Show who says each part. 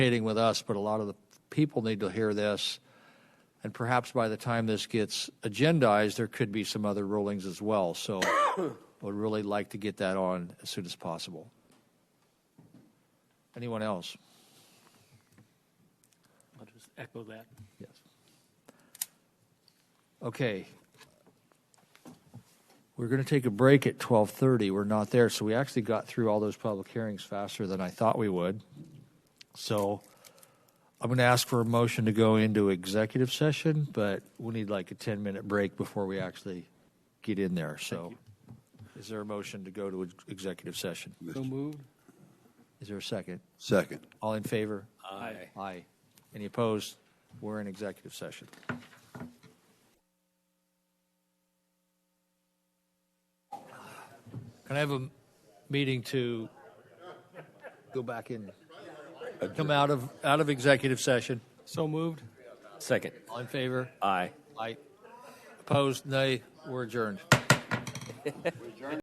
Speaker 1: communicating with us, but a lot of the people need to hear this. And perhaps by the time this gets agendized, there could be some other rulings as well. So would really like to get that on as soon as possible. Anyone else?
Speaker 2: I'll just echo that.
Speaker 1: Yes. Okay. We're going to take a break at 12:30. We're not there, so we actually got through all those public hearings faster than I thought we would. So I'm going to ask for a motion to go into executive session, but we'll need like a 10-minute break before we actually get in there. So is there a motion to go to ex- executive session?
Speaker 2: So moved?
Speaker 1: Is there a second?
Speaker 3: Second.
Speaker 1: All in favor?
Speaker 2: Aye.
Speaker 1: Aye. Any opposed? We're in executive session. Can I have a meeting to go back in, come out of, out of executive session?
Speaker 2: So moved?
Speaker 4: Second.
Speaker 1: All in favor?
Speaker 4: Aye.
Speaker 1: Aye. Opposed? Nay. We're adjourned.